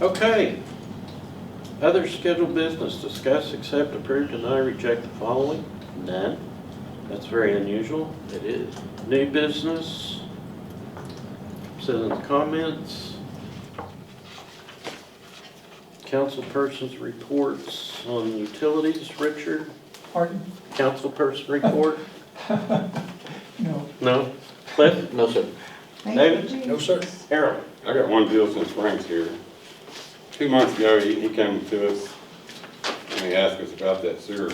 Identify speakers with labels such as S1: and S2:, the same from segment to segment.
S1: Okay. Other scheduled business, discuss, accept, approve, deny, reject the following. None. That's very unusual. It is. New business. Citizens' comments. Councilperson's reports on utilities. Richard,
S2: Pardon?
S1: councilperson report?
S2: No.
S1: No? Cliff?
S3: No, sir.
S1: David?
S4: No, sir.
S1: Harold?
S5: I got one deal since Frank's here. Two months ago, he, he came to us and he asked us about that sewer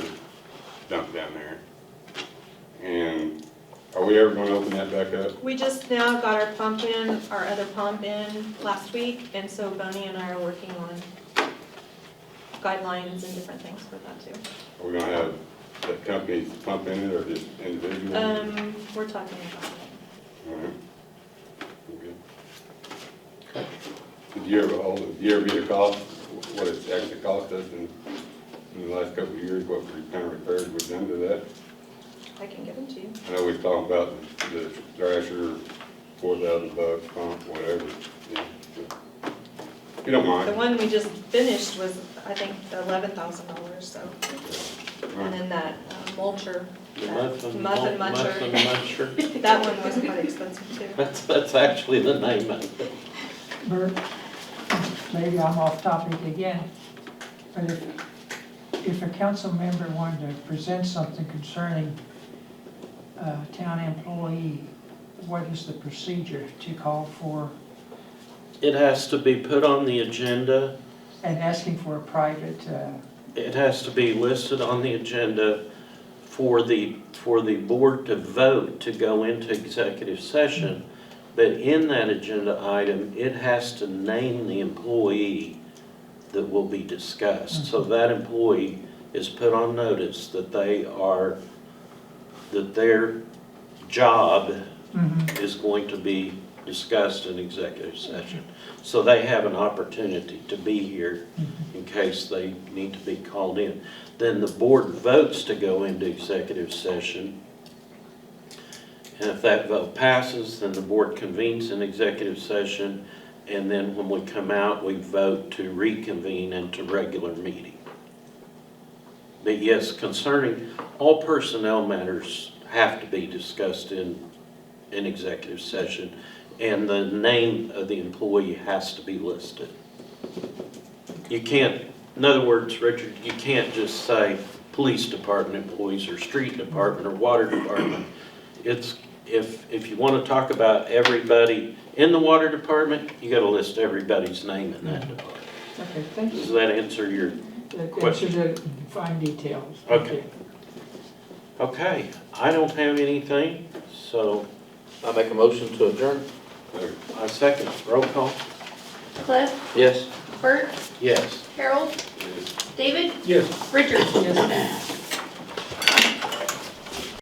S5: dump down there. And are we ever gonna open that back up?
S6: We just now got our pump in, our other pump in last week, and so Bonnie and I are working on guidelines and different things for that too.
S5: Are we gonna have the companies pumping it or just individual?
S6: Um, we're talking about it.
S5: All right. Okay. Did you ever, hold- did you ever get a cost, what it's actually cost us in, in the last couple of years, what we kind of repairs we've done to that?
S6: I can give them to you.
S5: I know we talked about the thrasher, four thousand bucks, pump, whatever. yeah, so. If you don't
S6: The
S5: mind.
S6: one we just finished was, I think, eleven thousand dollars, so, and
S5: Alright,
S6: then that uh, mulcher,
S1: The
S6: that
S1: muffin,
S6: muffin
S1: muffin
S6: muncher,
S1: muncher.
S6: that one was quite expensive too.
S1: That's, that's actually the name of it.
S2: Bert, maybe I'm off topic again, but if, if a council member wanted to present something concerning a town employee, what is the procedure to call for,
S1: It has to be put on the agenda,
S2: and asking for a private, uh,
S1: it has to be listed on the agenda for the, for the board to vote to go into executive session. But in that agenda item, it has to name the employee that will be discussed. So that employee is put on notice that they are, that their job
S2: mhm,
S1: is going to be discussed in executive session. So they have an opportunity to be here in case they need to be called in. Then the board votes to go into executive session. And if that vote passes, then the board convenes in executive session. And then when we come out, we vote to reconvene into regular meeting. But yes, concerning, all personnel matters have to be discussed in in executive session, and the name of the employee has to be listed. You can't, in other words, Richard, you can't just say police department employees, or street department, or water department. It's, if, if you want to talk about everybody in the water department, you got to list everybody's name in that department.
S2: okay, thank you.
S1: Does that answer your,
S2: That- That
S1: Question.
S2: should uh, fine details.
S1: Okay. okay, I don't have anything, so
S3: I make a motion to adjourn.
S5: there.
S1: I second, roll call,
S4: Cliff,
S3: Yes.
S4: Bert,
S1: yes.
S4: Harold, David,
S2: Yes.
S4: Richard.
S2: Yes.